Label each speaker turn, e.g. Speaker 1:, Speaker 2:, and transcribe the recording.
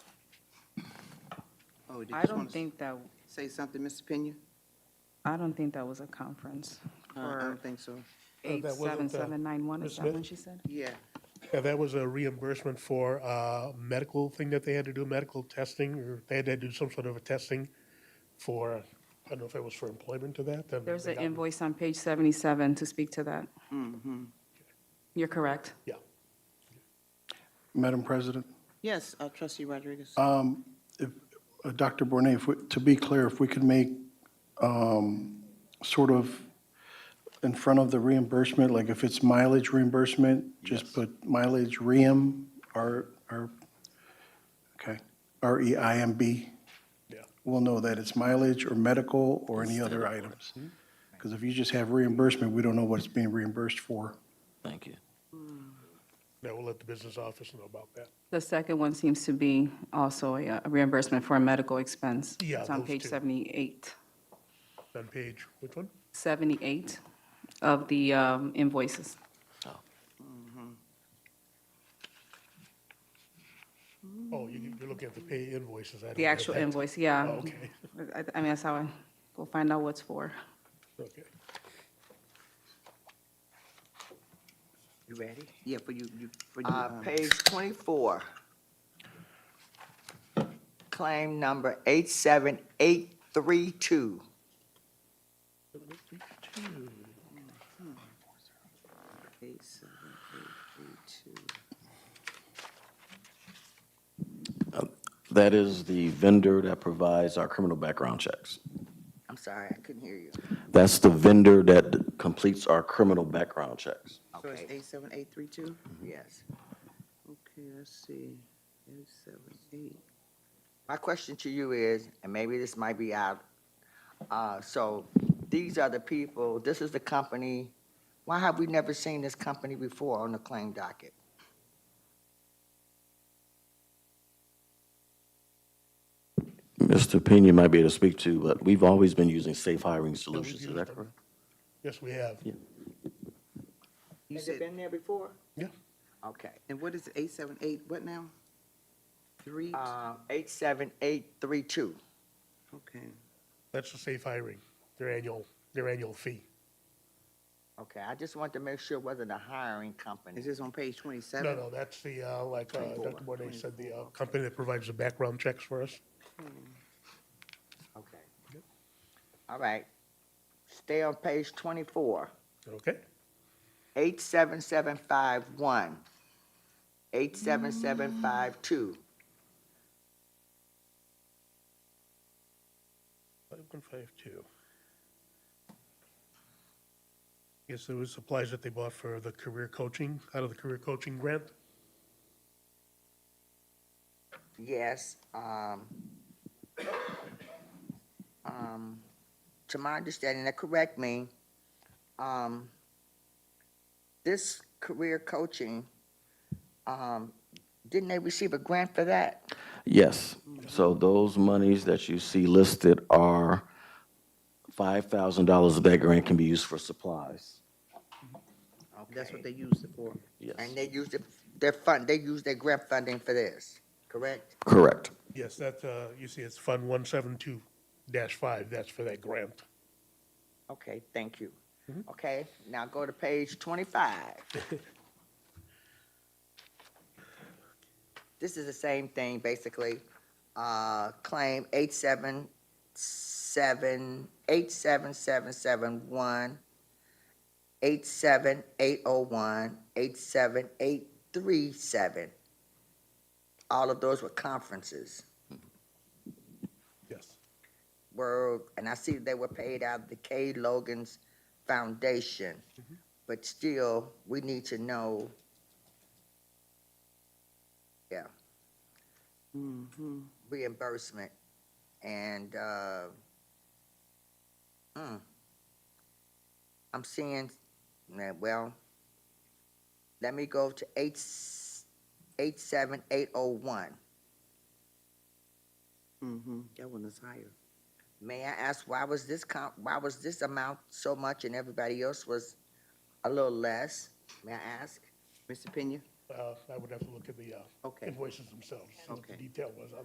Speaker 1: or Oh, did
Speaker 2: I
Speaker 1: you
Speaker 2: don't
Speaker 1: want to
Speaker 2: think that,
Speaker 1: say something, Mr. Pena?
Speaker 2: I don't think that was a conference
Speaker 1: I
Speaker 2: for
Speaker 1: don't think so.
Speaker 2: eight
Speaker 3: that
Speaker 2: seven
Speaker 3: wasn't, uh,
Speaker 2: seven nine one,
Speaker 3: Ms.
Speaker 2: is that
Speaker 3: Smith?
Speaker 2: what she said?
Speaker 1: Yeah,
Speaker 3: Yeah, that was a reimbursement for uh, medical thing that they had to do, medical testing, or they had to do some sort of a testing for, I don't know if it was for employment to that. then
Speaker 2: There's
Speaker 3: they
Speaker 2: an
Speaker 3: got-
Speaker 2: invoice on page seventy-seven to speak to that.
Speaker 1: Mm-hmm.
Speaker 2: You're correct.
Speaker 3: Yeah.
Speaker 4: Madam President,
Speaker 1: yes, uh, trustee Rodriguez.
Speaker 4: if, uh, Dr. Bornay, if, we- to be clear, if we could make um, sort of in front of the reimbursement, like if it's mileage reimbursement, just put mileage reim, R, R, okay, E R-E-I-M-B.
Speaker 3: Yeah.
Speaker 4: We'll know that it's mileage or medical or any other items. Because if you just have reimbursement, we don't know what it's being reimbursed for.
Speaker 5: Thank you.
Speaker 3: Yeah, we'll let the business office know about that.
Speaker 2: The second one seems to be also a uh, reimbursement for a medical expense.
Speaker 3: Yeah,
Speaker 2: It's on
Speaker 3: those
Speaker 2: page
Speaker 3: two.
Speaker 2: seventy-eight,
Speaker 3: On page, which one?
Speaker 2: seventy-eight of the um, invoices.
Speaker 3: Oh, you- you're looking at the pay invoices. I don't
Speaker 2: The
Speaker 3: have
Speaker 2: actual
Speaker 3: that.
Speaker 2: invoice, yeah.
Speaker 3: Oh, Okay,
Speaker 2: I, I mean, that's how I, we'll find out what's for.
Speaker 3: okay.
Speaker 6: You ready?
Speaker 1: Yeah, for you, you, for you.
Speaker 6: Uh,
Speaker 1: um,
Speaker 6: page twenty-four. Claim number eight-seven-eight-three-two.
Speaker 1: Eight, seven, eight, eight, two.
Speaker 5: That is the vendor that provides our criminal background checks.
Speaker 6: I'm sorry, I couldn't hear you.
Speaker 5: That's the vendor that completes our criminal background checks.
Speaker 1: So it's
Speaker 6: Okay,
Speaker 1: eight, seven, eight, three, two?
Speaker 6: yes.
Speaker 1: Okay, let's see, eight, seven, eight.
Speaker 6: My question to you is, and maybe this might be out, uh, so these are the people, this is the company, why have we never seen this company before on the claim docket?
Speaker 5: Mr. Pena might be able to speak to, but we've always been using safe hiring solutions, is
Speaker 3: used
Speaker 5: that
Speaker 3: them.
Speaker 5: correct?
Speaker 3: Yes, we have.
Speaker 1: You
Speaker 6: Has it
Speaker 1: said,
Speaker 6: been there before?
Speaker 3: Yeah.
Speaker 6: Okay.
Speaker 1: and what is eight, seven, eight, what now? Three,
Speaker 6: Uh, eight-seven-eight-three-two.
Speaker 1: okay.
Speaker 3: That's the safe hiring, their annual, their annual fee.
Speaker 6: Okay, I just want to make sure whether the hiring company.
Speaker 1: Is this on page
Speaker 3: No,
Speaker 1: twenty-seven?
Speaker 3: no, that's the, uh, like, uh,
Speaker 6: Twenty-four.
Speaker 3: Dr. Bonet said, the uh, company that provides the background checks for us.
Speaker 6: Okay. All right. Stay on page twenty-four,
Speaker 3: Okay?
Speaker 6: eight-seven-seven-five-one, eight-seven-seven-five-two.
Speaker 3: Five one five two. Yes, there was supplies that they bought for the career coaching, out of the career coaching grant.
Speaker 6: Yes, um, um, to my understanding, now correct me, um, this career coaching, um, didn't they receive a grant for that?
Speaker 5: Yes. So those monies that you see listed are $5,000 of that grant can be used for supplies.
Speaker 1: That's
Speaker 6: Okay.
Speaker 1: what they used it for.
Speaker 5: Yes,
Speaker 6: And they used it- their fund, they used their grant funding for this, correct?
Speaker 5: correct.
Speaker 3: Yes, that, uh, you see, it's Fund one seven two dash five, that's for that grant.
Speaker 6: Okay, thank you. Okay, now go to page twenty-five. This is the same thing, basically. Uh, claim eight seven seven, eight seven seven seven one, eight seven eight oh one, eight seven eight three seven. All of those were conferences.
Speaker 3: Yes.
Speaker 6: were, and I see they were paid out of the K. Logan's Foundation, but still, we need to know. Yeah. Reimbursement and, uh, mm. I'm seeing, nah, well, let me go to eight, s- eight seven eight oh one.
Speaker 1: Mm-hmm, that one is higher.
Speaker 6: May I ask, why was this comp, why was this amount so much and everybody else was a little less? May I ask?
Speaker 1: Mr. Pena?
Speaker 3: Uh, I would have to look at the, uh,
Speaker 1: Okay.
Speaker 3: invoices themselves, see what the
Speaker 1: Okay.
Speaker 3: detail was